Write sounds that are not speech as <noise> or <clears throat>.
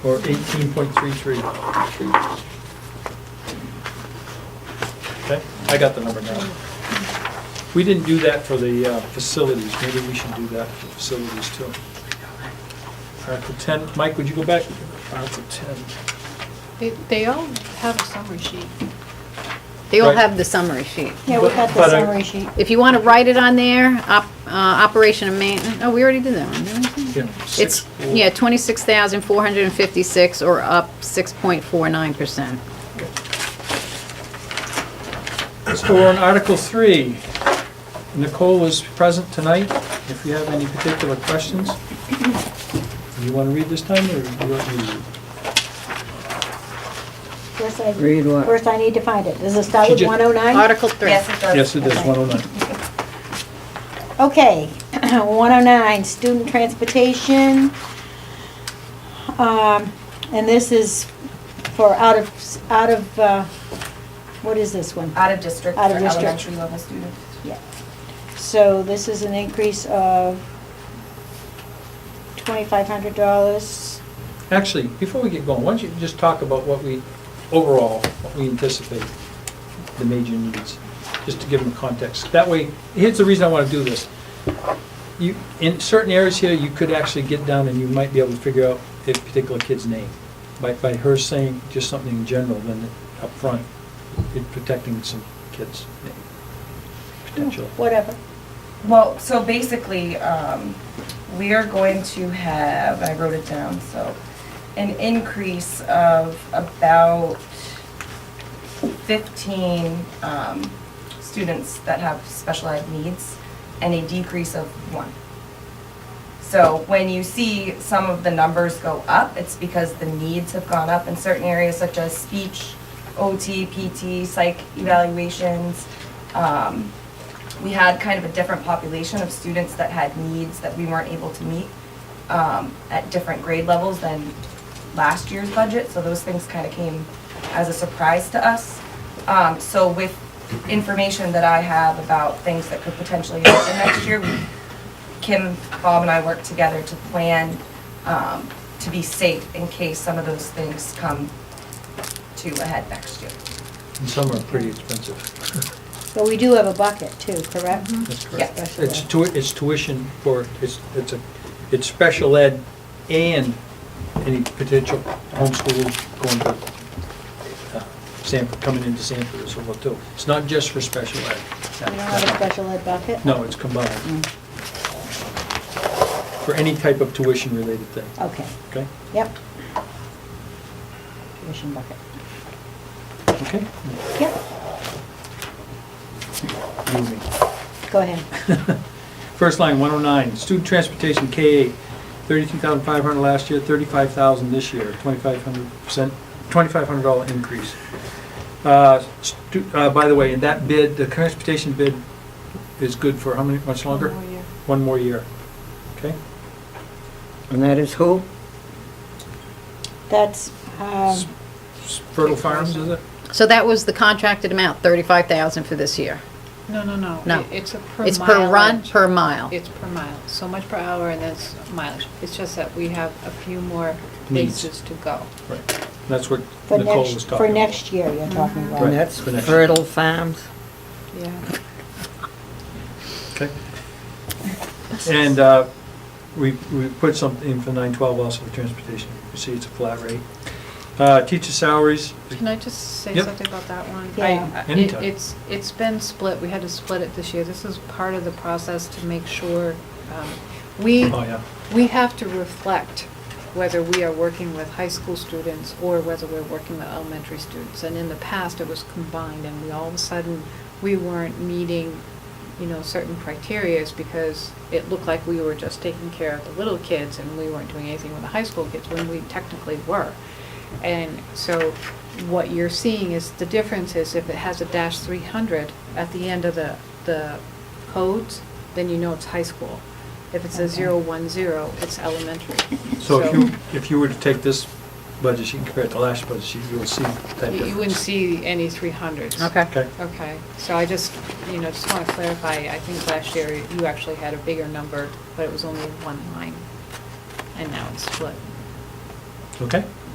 for 18.33. Okay, I got the number now. We didn't do that for the uh, facilities, maybe we should do that for facilities too. Article 10, Mike, would you go back? Article 10. They, they all have a summary sheet. They all Right. have the summary sheet. Yeah, we got the But I- summary sheet. If you want to write it on there, op, uh, operation and maintenance, oh, we already did that one, didn't we? you know, It's, six, four. yeah, twenty-six thousand, four hundred and fifty-six, or up six point four nine percent. So we're on Article 3. Nicole is present tonight, if you have any particular questions. Do you want to read this time, or do you want me to? read? First I- Read what? First, I need to find it. Does it start with Should you- 109? Article three. Yes, it Uh, does. Yes, it is, 109. Okay, <clears throat> 109, student transportation. Um, And this is for out of, out of, uh, what is this one? Out of district for Out of district. elementary level students. Yeah. So this is an increase of $2,500. Actually, before we get going, why don't you just talk about what we, overall, what we anticipate the major needs, just to give them context. That way, here's the reason I want to do this. You, in certain areas here, you could actually get down and you might be able to figure out a particular kid's name. By, by her saying just something in general, then up front, you're protecting some kids' name, potential. Whatever. Well, so basically, um, we are going to have, I wrote it down, so, an increase of about 15 um, students that have special ed needs and a decrease of one. So when you see some of the numbers go up, it's because the needs have gone up in certain areas such as speech, OT, PT, psych evaluations. Um, We had kind of a different population of students that had needs that we weren't able to meet um, at different grade levels than last year's budget, so those things kind of came as a surprise to us. Um, So with information that I have about things that could potentially happen next year, we Kim, Bob, and I work together to plan um, to be safe in case some of those things come to a head next year. And some are pretty expensive. <laughs> But we do have a bucket too, correct? Mm-hmm. That's correct. Yeah. Special It's ed. tui, it's tuition for, it's, it's a, it's special ed and any potential homeschoolers going to, uh, Sanford, coming into Sanford as well too. It's not just for special We don't have a ed. special ed Mm. bucket? No, it's combined. For any type of tuition related thing, Okay, okay? yep. Tuition bucket. Okay? Yep, You and me. go ahead. <laughs> First line, 109, student transportation, K-8, 32,500 last year, 35,000 this year, 2,500%, $2,500 increase. Uh, stu- uh, By the way, in that bid, the transportation bid is good for how many, much longer? One more year. One more year. Okay? Um, And that is who? That's, um, Fertile Farms, is it? So that was the contracted amount, thirty-five thousand for this year. No, no, no. No. It- It's a per It's per run, mileage. per mile. It's per mile, so much per hour and that's mileage. It's just that we have a few more Needs. places to go. Right. That's what for Nicole was next, talking about. for next year, you're talking about. And that's Right. Fertile Farms? Yeah. Okay. And uh, we, we put something for 912 also for transportation. You see, it's a flat rate. Uh, Teacher salaries, Can I just say Yep. something about that one? Yeah. I- I- it- Anytime. It's, it's been split, we had to split it this year. This is part of the process to make sure, um, we, oh, yeah. we have to reflect whether we are working with high school students or whether we're working with elementary students. And in the past, it was combined, and we, all of a sudden, we weren't meeting, you know, certain criterias because it looked like we were just taking care of the little kids and we weren't doing anything with the high school kids when we technically were. And so what you're seeing is, the difference is if it has a dash 300 at the end of the, the codes, then you know it's high school. If it's a Okay. zero one zero, it's elementary. So if you, if you were to take this budget sheet and compare it to last budget sheet, you'll see that You you difference. wouldn't see any three hundreds. Okay. Okay, Okay, so I just, you know, just want to clarify, I think last year you actually had a bigger number, but it was only one line, and now it's split. Okay?